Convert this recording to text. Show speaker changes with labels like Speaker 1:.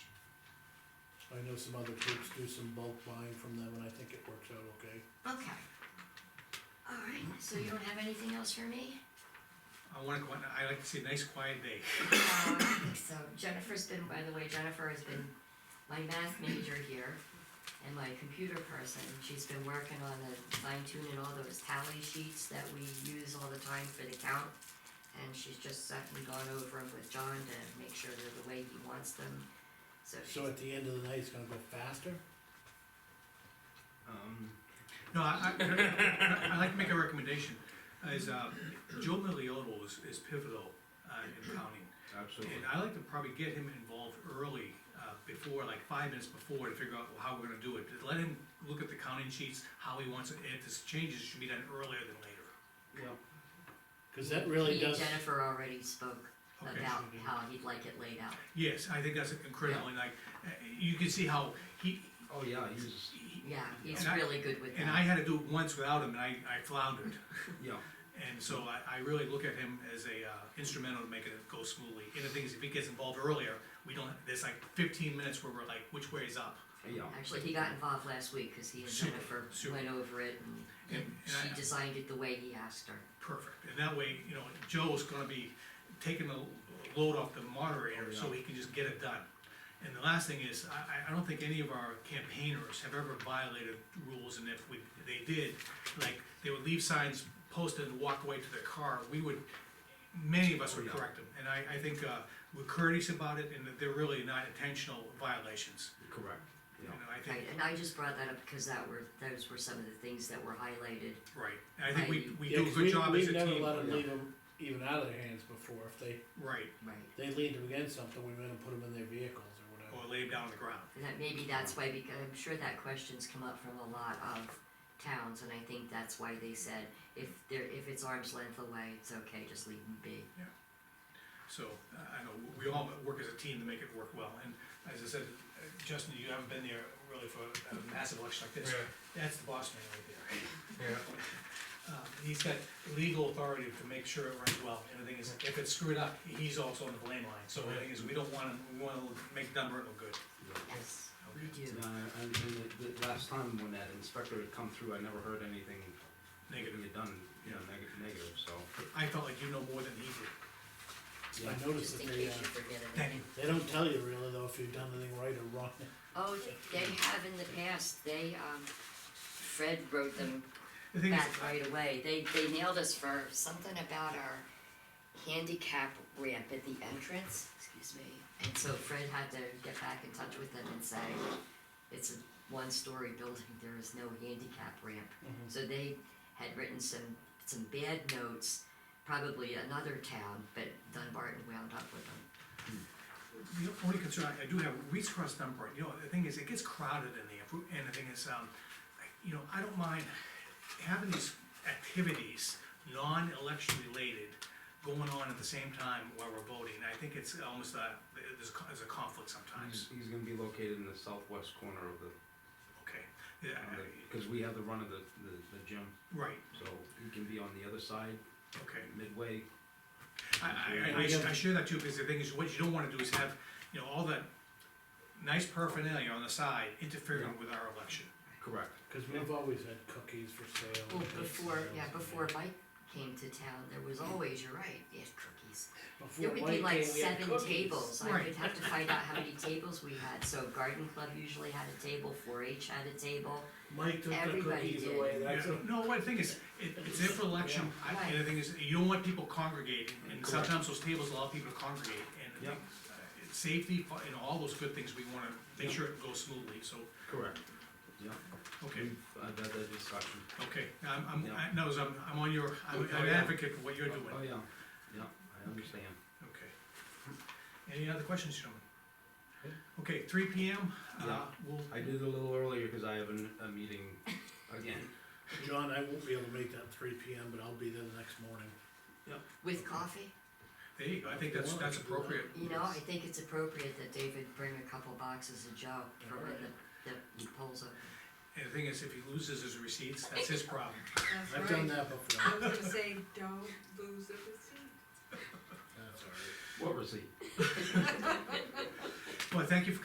Speaker 1: I know some other groups do some bulk buying from them, and I think it works out okay.
Speaker 2: Okay. All right, so you don't have anything else for me?
Speaker 3: I wanna, go on- I like to see a nice quiet day.
Speaker 2: No, I don't think so. Jennifer's been, by the way, Jennifer has been my math major here and my computer person. She's been working on the fine tuning all those tally sheets that we use all the time for the count. And she's just sat and gone over them with John to make sure they're the way he wants them. So
Speaker 1: So
Speaker 2: she's,
Speaker 1: at the end of the night, it's gonna go faster?
Speaker 4: Um,
Speaker 3: No, I, I, I'd like to make a recommendation, is, uh, Joe Milliotto is, is pivotal, uh, in counting.
Speaker 4: absolutely.
Speaker 3: And I like to probably get him involved early, uh, before, like five minutes before, to figure out how we're gonna do it. Let him look at the counting sheets, how he wants it, and if there's changes, it should be done earlier than later.
Speaker 4: Yeah.
Speaker 1: Cause that really
Speaker 2: he and
Speaker 1: does,
Speaker 2: Jennifer already spoke
Speaker 3: Okay.
Speaker 2: about how he'd like it laid out.
Speaker 3: Yes, I think that's incredible, and like, uh, you can see how he,
Speaker 4: Oh, yeah, he's,
Speaker 3: he-
Speaker 2: Yeah, he's
Speaker 3: And I-
Speaker 2: really good with that.
Speaker 3: and I had to do it once without him, and I, I floundered.
Speaker 4: yeah,
Speaker 3: And so I, I really look at him as a uh, instrumental to making it go smoothly. And the thing is, if he gets involved earlier, we don't, there's like fifteen minutes where we're like, which way is up?
Speaker 4: yeah.
Speaker 2: Actually, he got involved last week, cause he and
Speaker 3: Super,
Speaker 2: Jennifer
Speaker 3: super.
Speaker 2: went over it and
Speaker 3: And- and
Speaker 2: she
Speaker 3: I-
Speaker 2: designed it the way he asked her.
Speaker 3: Perfect. And that way, you know, Joe's gonna be taking the load off the
Speaker 1: Oh,
Speaker 3: moderator, so he can just get it done. And the last thing is, I, I, I don't think any of our campaigners have ever violated rules, and if we, they did, like, they would leave signs posted and walk away to their car, we would, many of us would
Speaker 4: Oh, yeah.
Speaker 3: correct them. And I, I think, uh, we're courteous about it, and that they're really not intentional violations.
Speaker 4: Correct,
Speaker 3: You
Speaker 4: yeah.
Speaker 3: know, I
Speaker 2: Right,
Speaker 3: think,
Speaker 2: and I just brought that up because that were, those were some of the things that were highlighted.
Speaker 3: right, and I think we, we
Speaker 1: yeah,
Speaker 3: do a
Speaker 1: 'cause
Speaker 3: good
Speaker 1: we,
Speaker 3: job as
Speaker 1: we've
Speaker 3: a
Speaker 1: never
Speaker 3: team,
Speaker 1: let them
Speaker 4: yeah.
Speaker 1: leave them even out of their hands before, if they,
Speaker 3: right,
Speaker 2: Right.
Speaker 1: they leaned them against something, we went and put them in their vehicles or whatever.
Speaker 3: or lay 'em down on the ground.
Speaker 2: And that, maybe that's why, because I'm sure that question's come up from a lot of towns, and I think that's why they said, if they're, if it's arm's length away, it's okay, just leave them be.
Speaker 3: So, I I know, we all work as a team to make it work well, and as I said, uh, Justin, you haven't been there really for a massive election like this. That's the boss man right there.
Speaker 5: yeah.
Speaker 3: Uh, He's got legal authority to make sure it runs well, and the thing is, if it's screwed up, he's also on the blame line, so the thing is, we don't wanna, we wanna make Dunbar look good.
Speaker 4: yeah.
Speaker 2: Yes, we do.
Speaker 4: And, I- and, and the, the last time when that inspector had come through, I never heard anything
Speaker 3: Negative,
Speaker 4: negative done, you know, negative, negative, so.
Speaker 3: I felt like you know more than he did.
Speaker 4: yeah.
Speaker 1: I noticed
Speaker 2: Just in
Speaker 1: that they,
Speaker 2: case
Speaker 1: uh,
Speaker 2: you forget
Speaker 3: Thank
Speaker 2: anything.
Speaker 3: you.
Speaker 1: they don't tell you really though if you've done anything right or wrong.
Speaker 2: Oh, they have in the past, they, um, Fred wrote them
Speaker 3: The thing is,
Speaker 2: back right away. They, they nailed us for something about our handicap ramp at the entrance, excuse me. And so Fred had to get back in touch with them and say, it's a one-story building, there is no handicap ramp. So they had written some, some bad notes, probably another town, but Dunbarton wound up with them.
Speaker 3: The only concern I- I do have, Reeds Cross Dunbar, you know, the thing is, it gets crowded in there, and the thing is, um, you know, I don't mind having these activities, non-election related, going on at the same time while we're voting, I think it's almost a, there's, a- there's a conflict
Speaker 4: He's,
Speaker 3: sometimes,
Speaker 4: he's gonna be located in the southwest corner of the,
Speaker 3: okay? Yeah,
Speaker 4: of the-
Speaker 3: I-
Speaker 4: cause we have the run of the, the, the gym,
Speaker 3: right,
Speaker 4: so he can be on the other side,
Speaker 3: okay.
Speaker 4: midway.
Speaker 3: I, I, I, I share that too, because the thing is, what you don't wanna do is have, you know, all that nice paraphernalia on the side interfering with our election.
Speaker 4: Correct,
Speaker 1: Cause we've always had cookies for sale.
Speaker 2: Well,
Speaker 1: and bake
Speaker 2: Oh, before,
Speaker 1: sales
Speaker 2: yeah,
Speaker 1: and-
Speaker 2: before Mike came to town, there was always, you're right, yes, cookies.
Speaker 1: Before
Speaker 2: There would be
Speaker 1: Mike
Speaker 2: like
Speaker 1: came, we had
Speaker 2: seven
Speaker 1: cookies.
Speaker 2: tables, I
Speaker 3: Right.
Speaker 2: would have to find out how many tables we had, so garden club usually had a table, four H had a table.
Speaker 6: Mike took the
Speaker 2: Everybody
Speaker 6: cookies
Speaker 2: did.
Speaker 6: away, that's
Speaker 3: Yeah,
Speaker 6: a,
Speaker 3: no, what the thing is, it, it's there for election, I, and the thing is, you don't want people congregating, and
Speaker 4: Correct.
Speaker 3: sometimes those tables allow people to congregate, and I
Speaker 4: Yeah.
Speaker 3: think, uh, it's safety, fu- and all those good things, we wanna make sure it goes smoothly, so,
Speaker 4: correct, yeah.
Speaker 3: okay,
Speaker 4: We've, I've had that discussion.
Speaker 3: okay, I'm, I'm,
Speaker 4: Yeah.
Speaker 3: I, no, I'm, I'm on your, I'm
Speaker 4: Okay,
Speaker 3: I'm
Speaker 4: yeah.
Speaker 3: advocate for what you're doing,
Speaker 4: Oh, yeah, yeah, I understand.
Speaker 3: okay. Any other questions, gentlemen?
Speaker 4: Okay.
Speaker 3: Okay, three P M, uh,
Speaker 4: Yeah.
Speaker 3: we'll,
Speaker 4: I did a little earlier because I have an, a meeting again.
Speaker 1: John, I won't be able to make that three P M, but I'll be there the next morning.
Speaker 2: With coffee,
Speaker 3: there you go, I think that's,
Speaker 1: Well,
Speaker 3: that's
Speaker 1: I can do that.
Speaker 3: appropriate,
Speaker 2: you know, I think it's appropriate that David bring a couple boxes of Joe for when the, the polls open.
Speaker 3: and the thing is, if he loses his receipts, that's his problem.
Speaker 7: That's
Speaker 1: I've done
Speaker 7: right.
Speaker 1: that before.
Speaker 7: I was gonna say, don't lose the receipt.
Speaker 1: That's all right.
Speaker 4: What was he?
Speaker 3: Well, thank you for